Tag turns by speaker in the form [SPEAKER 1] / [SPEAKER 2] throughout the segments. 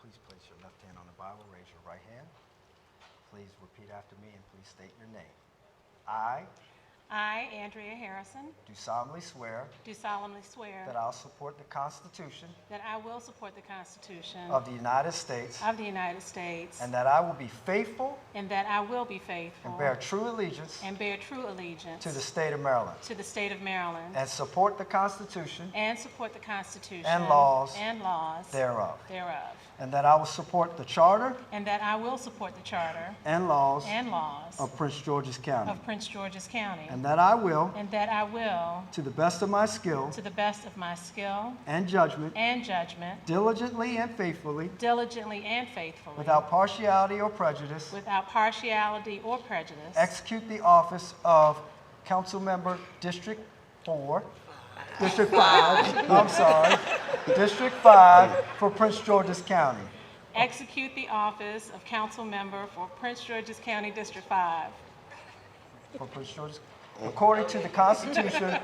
[SPEAKER 1] Please place your left hand on the Bible, raise your right hand. Please repeat after me and please state your name. I
[SPEAKER 2] I, Andrea Harrison,
[SPEAKER 1] do solemnly swear
[SPEAKER 2] do solemnly swear
[SPEAKER 1] that I'll support the Constitution
[SPEAKER 2] that I will support the Constitution
[SPEAKER 1] of the United States
[SPEAKER 2] of the United States
[SPEAKER 1] and that I will be faithful
[SPEAKER 2] and that I will be faithful
[SPEAKER 1] and bear true allegiance
[SPEAKER 2] and bear true allegiance
[SPEAKER 1] to the state of Maryland
[SPEAKER 2] to the state of Maryland
[SPEAKER 1] and support the Constitution
[SPEAKER 2] and support the Constitution
[SPEAKER 1] And laws
[SPEAKER 2] and laws
[SPEAKER 1] thereof,
[SPEAKER 2] thereof,
[SPEAKER 1] and that I will support the Charter
[SPEAKER 2] and that I will support the Charter
[SPEAKER 1] and laws
[SPEAKER 2] and laws
[SPEAKER 1] of Prince George's County,
[SPEAKER 2] of Prince George's County,
[SPEAKER 1] and that I will,
[SPEAKER 2] and that I will,
[SPEAKER 1] to the best of my skill
[SPEAKER 2] to the best of my skill
[SPEAKER 1] and judgment,
[SPEAKER 2] and judgment,
[SPEAKER 1] diligently and faithfully,
[SPEAKER 2] diligently and faithfully,
[SPEAKER 1] without partiality or prejudice,
[SPEAKER 2] without partiality or prejudice,
[SPEAKER 1] execute the office of Council Member District 4, District 5, I'm sorry, District 5 for Prince George's County,
[SPEAKER 2] execute the office of council member for Prince George's County District 5
[SPEAKER 1] for Prince George's, according to the Constitution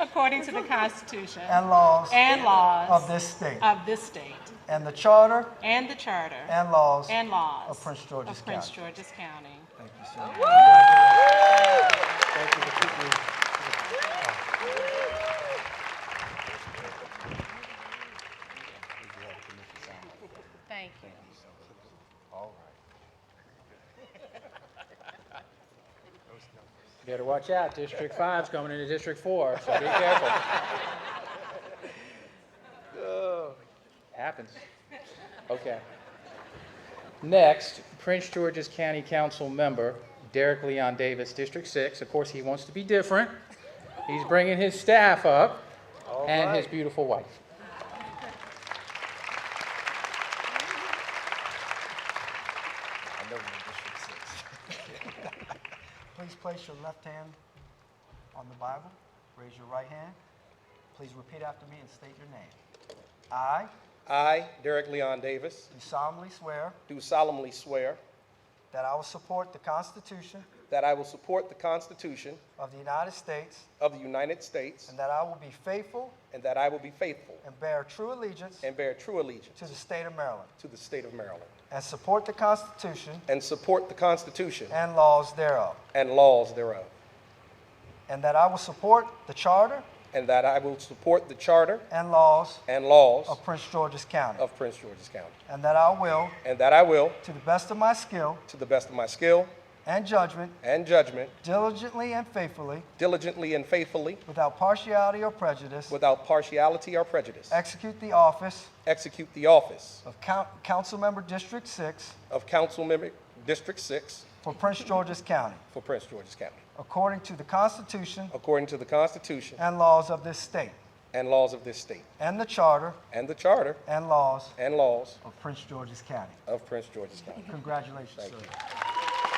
[SPEAKER 2] according to the Constitution
[SPEAKER 1] and laws
[SPEAKER 2] and laws
[SPEAKER 1] of this state,
[SPEAKER 2] of this state
[SPEAKER 1] and the Charter
[SPEAKER 2] and the Charter
[SPEAKER 1] and laws
[SPEAKER 2] and laws
[SPEAKER 1] of Prince George's
[SPEAKER 2] of Prince
[SPEAKER 1] County.
[SPEAKER 2] George's County.
[SPEAKER 1] Thank you so much. Thank you for keeping-
[SPEAKER 2] Thank you.
[SPEAKER 3] Better watch out, District Five's coming into District Four, so be careful. Happens. Okay. Next, Prince George's County Council Member Derek Leon Davis, District Six. Of course, he wants to be different. He's bringing his staff up and his beautiful wife.
[SPEAKER 1] I know you're District Six. Please place your left hand on the Bible, raise your right hand. Please repeat after me and state your name. I
[SPEAKER 4] I, Derek Leon Davis,
[SPEAKER 1] do solemnly swear
[SPEAKER 4] do solemnly swear
[SPEAKER 1] that I will support the Constitution
[SPEAKER 4] that I will support the Constitution
[SPEAKER 1] of the United States
[SPEAKER 4] of the United States
[SPEAKER 1] and that I will be faithful
[SPEAKER 4] and that I will be faithful
[SPEAKER 1] and bear true allegiance
[SPEAKER 4] and bear true allegiance
[SPEAKER 1] to the state of Maryland
[SPEAKER 4] to the state of Maryland
[SPEAKER 1] and support the Constitution
[SPEAKER 4] and support the Constitution
[SPEAKER 1] and laws thereof,
[SPEAKER 4] and laws thereof
[SPEAKER 1] and that I will support the Charter
[SPEAKER 4] and that I will support the Charter
[SPEAKER 1] and laws
[SPEAKER 4] and laws
[SPEAKER 1] of Prince George's County,
[SPEAKER 4] of Prince George's County
[SPEAKER 1] and that I will,
[SPEAKER 4] and that I will,
[SPEAKER 1] to the best of my skill
[SPEAKER 4] to the best of my skill
[SPEAKER 1] and judgment,
[SPEAKER 4] and judgment,
[SPEAKER 1] diligently and faithfully,
[SPEAKER 4] diligently and faithfully,
[SPEAKER 1] without partiality or prejudice,
[SPEAKER 4] without partiality or prejudice,
[SPEAKER 1] execute the office
[SPEAKER 4] execute the office
[SPEAKER 1] of Coun- Councilmember District 6
[SPEAKER 4] of Council Member District 6
[SPEAKER 1] for Prince George's County,
[SPEAKER 4] for Prince George's County
[SPEAKER 1] according to the Constitution
[SPEAKER 4] according to the Constitution
[SPEAKER 1] and laws of this state,
[SPEAKER 4] and laws of this state,
[SPEAKER 1] and the Charter
[SPEAKER 4] and the Charter
[SPEAKER 1] and laws
[SPEAKER 4] and laws
[SPEAKER 1] of Prince George's County.
[SPEAKER 4] of Prince George's County.
[SPEAKER 1] Congratulations, sir.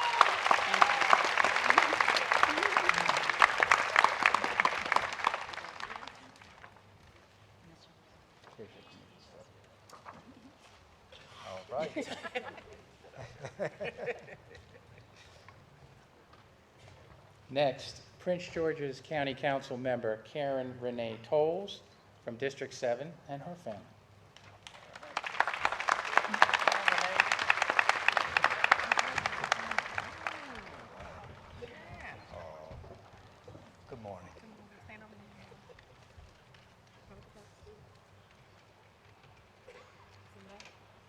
[SPEAKER 1] All right.
[SPEAKER 3] Next, Prince George's County Council member Karen Renee Tolles from District 7 and her family.
[SPEAKER 1] Good morning.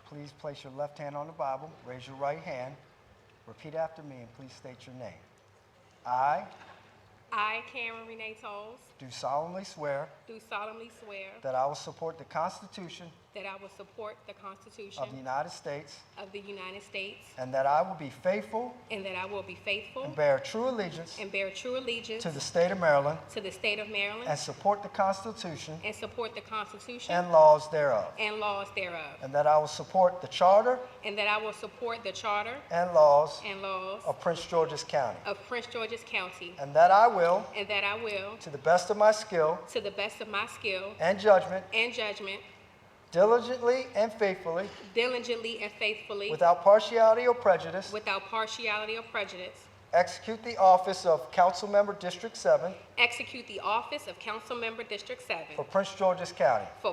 [SPEAKER 1] Please place your left hand on the Bible, raise your right hand, repeat after me, and please state your name. I
[SPEAKER 5] I, Cameron Renee Tolles,
[SPEAKER 1] do solemnly swear
[SPEAKER 5] do solemnly swear
[SPEAKER 1] that I will support the Constitution
[SPEAKER 5] that I will support the Constitution
[SPEAKER 1] of the United States
[SPEAKER 5] of the United States
[SPEAKER 1] and that I will be faithful
[SPEAKER 5] and that I will be faithful
[SPEAKER 1] and bear true allegiance
[SPEAKER 5] and bear true allegiance
[SPEAKER 1] to the state of Maryland
[SPEAKER 5] to the state of
[SPEAKER 1] and
[SPEAKER 5] Maryland
[SPEAKER 1] support the Constitution
[SPEAKER 5] and support the Constitution
[SPEAKER 1] and laws thereof,
[SPEAKER 5] and laws thereof,
[SPEAKER 1] and that I will support the Charter
[SPEAKER 5] and that I will support the Charter
[SPEAKER 1] and laws
[SPEAKER 5] and laws
[SPEAKER 1] of Prince George's County.
[SPEAKER 5] of Prince George's County,
[SPEAKER 1] And that I will,
[SPEAKER 5] and that I will,
[SPEAKER 1] to the best of my skill
[SPEAKER 5] to the best of my skill
[SPEAKER 1] and judgment,
[SPEAKER 5] and judgment,
[SPEAKER 1] diligently and faithfully,
[SPEAKER 5] diligently and faithfully,
[SPEAKER 1] without partiality or prejudice,
[SPEAKER 5] without partiality or prejudice,
[SPEAKER 1] execute the office of Councilmember District 7
[SPEAKER 5] execute the office of Council Member District 7
[SPEAKER 1] for Prince George's County,
[SPEAKER 5] for